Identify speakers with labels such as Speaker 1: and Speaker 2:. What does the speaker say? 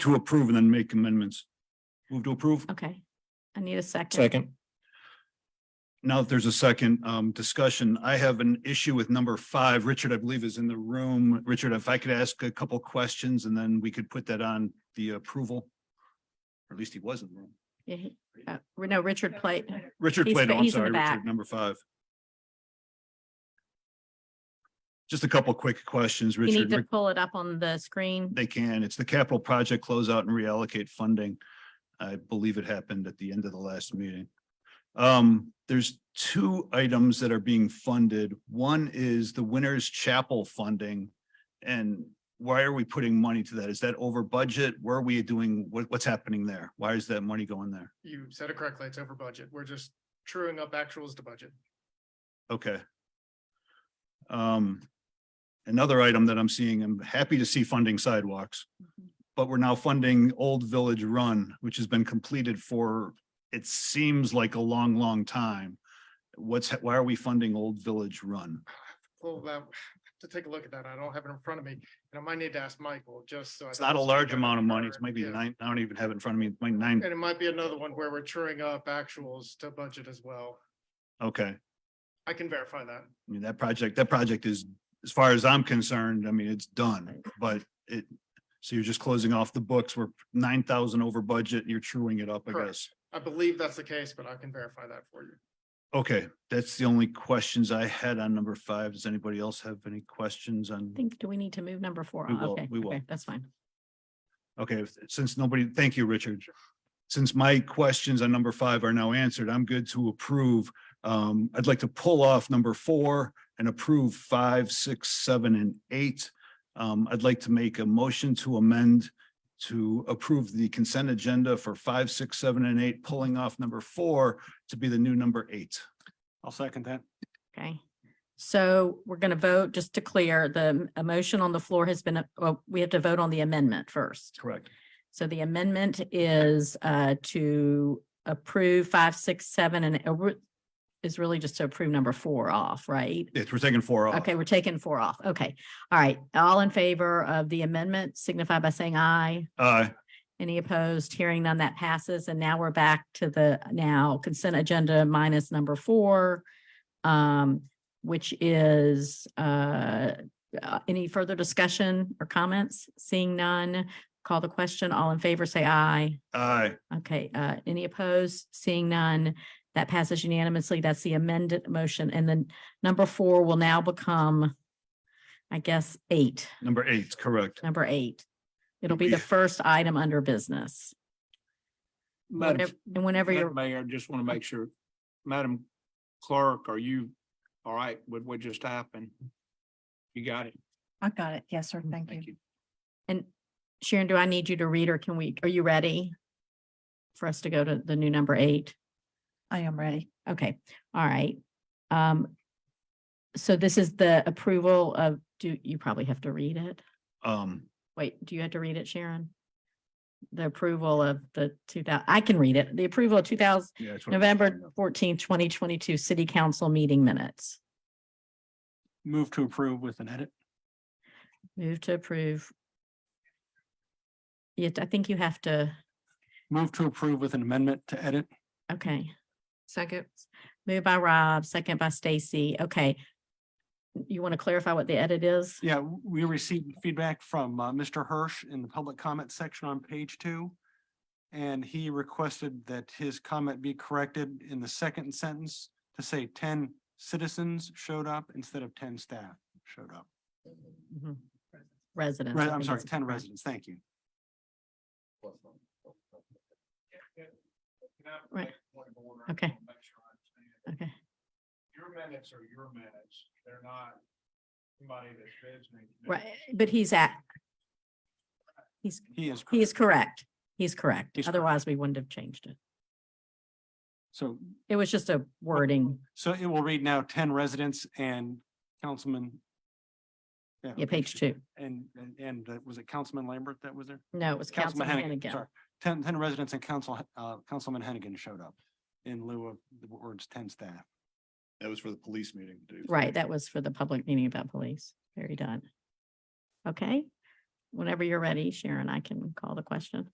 Speaker 1: to approve and then make amendments. Move to approve.
Speaker 2: Okay. I need a second.
Speaker 3: Second,
Speaker 1: Now that there's a second um discussion, I have an issue with number five. Richard, I believe, is in the room. Richard, if I could ask a couple questions and then we could put that on the approval. Or at least he was in the room.
Speaker 2: Yeah, he- uh, No, Richard played.
Speaker 1: Richard
Speaker 2: He's-
Speaker 1: Plato, I'm
Speaker 2: he's in the
Speaker 1: sorry,
Speaker 2: back.
Speaker 1: Richard, number five. Just a couple quick questions,
Speaker 2: You
Speaker 1: Richard.
Speaker 2: need to pull it up on the screen.
Speaker 1: They can. It's the capital project closeout and reallocate funding. I believe it happened at the end of the last meeting. Um, there's two items that are being funded. One is the Winners Chapel funding. And why are we putting money to that? Is that over budget? Where are we doing? What, what's happening there? Why is that money going there?
Speaker 4: You said it correctly. It's over budget. We're just truing up actuals to budget.
Speaker 1: Okay. Um, another item that I'm seeing, I'm happy to see funding sidewalks. But we're now funding Old Village Run, which has been completed for, it seems like a long, long time. What's, why are we funding Old Village Run?
Speaker 4: Well, that, to take a look at that, I don't have it in front of me, and I might need to ask Michael, just so. I
Speaker 1: It's
Speaker 4: don't
Speaker 1: not a
Speaker 4: speak
Speaker 1: large
Speaker 4: out of
Speaker 1: amount of money.
Speaker 4: turn.
Speaker 1: It's maybe
Speaker 4: Yeah.
Speaker 1: nine, I don't even have it in front of me, it's like nine,
Speaker 4: And it might be another one where we're truing up actuals to budget as well.
Speaker 1: okay.
Speaker 4: I can verify that.
Speaker 1: I mean, that project, that project is, as far as I'm concerned, I mean, it's done, but it, so you're just closing off the books. We're nine thousand over budget. You're truing it up, I
Speaker 4: Correct.
Speaker 1: guess.
Speaker 4: I believe that's the case, but I can verify that for you.
Speaker 1: Okay, that's the only questions I had on number five. Does anybody else have any questions on?
Speaker 2: I think, do we need to move number four?
Speaker 1: We
Speaker 2: Oh,
Speaker 1: will,
Speaker 2: Okay,
Speaker 1: we will.
Speaker 2: okay, That's fine.
Speaker 1: Okay, since nobody, thank you, Richard. Since my questions on number five are now answered, I'm good to approve. Um, I'd like to pull off number four and approve five, six, seven, and eight. Um, I'd like to make a motion to amend to approve the consent agenda for five, six, seven, and eight, pulling off number four to be the new number eight.
Speaker 5: I'll second that.
Speaker 2: Okay. So we're going to vote, just to clear, the m- a motion on the floor has been, a- well, we have to vote on the amendment first.
Speaker 1: Correct.
Speaker 2: So the amendment is uh, to approve five, six, seven, and uh, re- is really just to approve number four off, right?
Speaker 1: Yes, we're taking four off.
Speaker 2: Okay, we're taking four off. Okay. All right. All in favor of the amendment signify by saying aye.
Speaker 1: Uh,
Speaker 2: Any opposed? Hearing none, that passes. And now we're back to the now consent agenda minus number four, um, which is, uh, uh, any further discussion or comments? Seeing none, call the question. All in favor, say aye.
Speaker 1: aye.
Speaker 2: Okay, uh, any opposed? Seeing none, that passes unanimously. That's the amended motion. And then number four will now become, I guess, eight,
Speaker 1: Number eight, correct.
Speaker 2: number eight. It'll be the
Speaker 1: Yeah.
Speaker 2: first item under business. Whenever- And whenever you're,
Speaker 5: Madam Mayor, I just want to make sure, Madam Clerk, are you all right with what just happened? You got it.
Speaker 6: I got it. Yes, sir. Thank you.
Speaker 5: Thank you.
Speaker 2: and Sharon, do I need you to read or can we, are you ready? For us to go to the new number eight?
Speaker 6: I am ready.
Speaker 2: Okay, all right. Um, so this is the approval of, do, you probably have to read it.
Speaker 1: Um,
Speaker 2: Wait, do you have to read it, Sharon? The approval of the two thousand, I can read it. The approval of two thousand,
Speaker 1: yeah. it's what-
Speaker 2: November fourteenth, twenty twenty-two, city council meeting minutes.
Speaker 5: Move to approve with an edit.
Speaker 2: Move to approve. Yet I think you have to,
Speaker 5: Move to approve with an amendment to edit.
Speaker 2: okay. Second. Moved by Rob, second by Stacy. Okay. You want to clarify what the edit is?
Speaker 5: Yeah, w- we received feedback from uh, Mr. Hirsch in the public comment section on page two. And he requested that his comment be corrected in the second sentence to say ten citizens showed up instead of ten staff showed up.
Speaker 2: Mhm. Residents.
Speaker 5: Mm-hmm. Re-
Speaker 2: I
Speaker 5: I'm
Speaker 2: think
Speaker 5: sorry,
Speaker 2: it's-
Speaker 5: ten
Speaker 2: right.
Speaker 5: residents. Thank you.
Speaker 2: Right. Okay. Okay,
Speaker 4: Your minutes are your minutes. They're not somebody that's visiting.
Speaker 2: right, but he's at. He's
Speaker 5: He is.
Speaker 2: He is
Speaker 5: correct.
Speaker 2: correct. He's correct.
Speaker 5: He's correct.
Speaker 2: Otherwise, we wouldn't have changed it.
Speaker 5: So,
Speaker 2: It was just a wording.
Speaker 5: so it will read now ten residents and Councilman.
Speaker 2: Yeah, page two.
Speaker 5: And, and- and uh, was it Councilman Lambert that was there?
Speaker 2: No, it was Councilman Hannigan.
Speaker 5: sorry. Ten, ten residents and council, uh, Councilman Hennigan showed up in lieu of the words ten staff.
Speaker 1: That was for the police meeting. dude.
Speaker 2: Right, that was for the public meeting about police. Very done. Okay, whenever you're ready, Sharon, I can call the question.